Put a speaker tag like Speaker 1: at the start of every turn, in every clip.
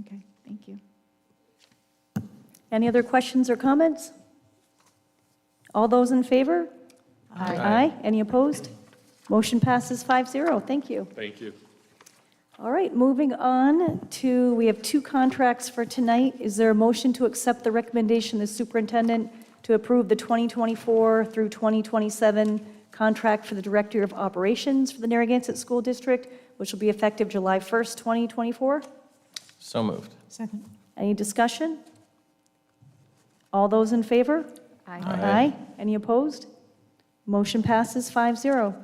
Speaker 1: Okay, thank you.
Speaker 2: Any other questions or comments? All those in favor? Aye. Aye. Any opposed? Motion passes 5-0. Thank you.
Speaker 3: Thank you.
Speaker 2: All right, moving on to, we have two contracts for tonight. Is there a motion to accept the recommendation of the superintendent to approve the 2024 through 2027 contract for the Director of Operations for the Narragansett School District, which will be effective July 1st, 2024?
Speaker 4: So moved.
Speaker 1: Second.
Speaker 2: Any discussion? All those in favor?
Speaker 4: Aye.
Speaker 2: Any opposed? Motion passes Um, 5-0.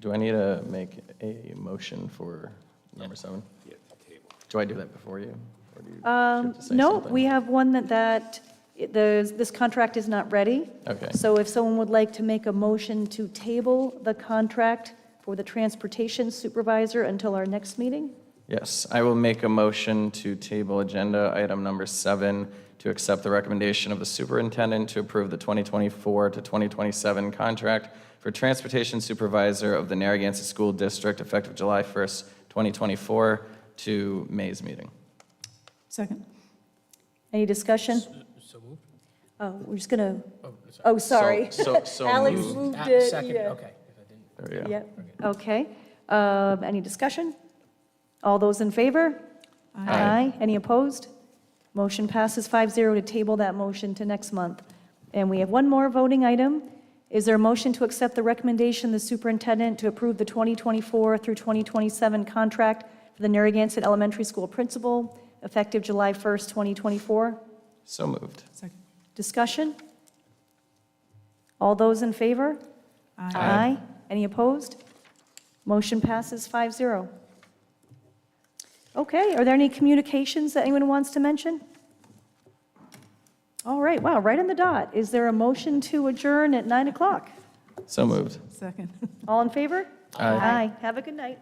Speaker 4: Do I need to make a motion for number seven? Do I do that before you? or do you- do you have
Speaker 2: Um,
Speaker 4: to say
Speaker 2: No,
Speaker 4: something?
Speaker 2: we have one that, that, it- the, this contract is not ready.
Speaker 4: Okay.
Speaker 2: So if someone would like to make a motion to table the contract for the transportation supervisor until our next meeting?
Speaker 4: Yes, I will make a motion to table agenda item number seven to accept the recommendation of the superintendent to approve the 2024 to 2027 contract for transportation supervisor of the Narragansett School District effective July 1st, 2024 to May's meeting.
Speaker 1: Second.
Speaker 2: Any discussion?
Speaker 5: So moved?
Speaker 2: Oh, we're just gonna,
Speaker 5: Oh, sorry.
Speaker 2: oh, sorry.
Speaker 4: So, so
Speaker 2: Alex
Speaker 4: moved.
Speaker 2: moved
Speaker 5: Ah,
Speaker 2: it,
Speaker 5: Second,
Speaker 2: yeah.
Speaker 5: okay. If I didn't-
Speaker 4: There we go.
Speaker 2: Yep, okay. Um, Any discussion? All those in favor?
Speaker 4: Aye.
Speaker 2: Any opposed? Motion passes 5-0 to table that motion to next month. And we have one more voting item. Is there a motion to accept the recommendation of the superintendent to approve the 2024 through 2027 contract for the Narragansett Elementary School principal, effective July 1st, 2024?
Speaker 4: So moved.
Speaker 1: Second.
Speaker 2: Discussion? All those in favor? Aye. Any opposed? Motion passes 5-0. Okay, are there any communications that anyone wants to mention? All right, wow, right on the dot. Is there a motion to adjourn at 9 o'clock?
Speaker 4: So moved.
Speaker 1: Second.
Speaker 2: All in favor?
Speaker 4: Aye.
Speaker 2: Have a good night.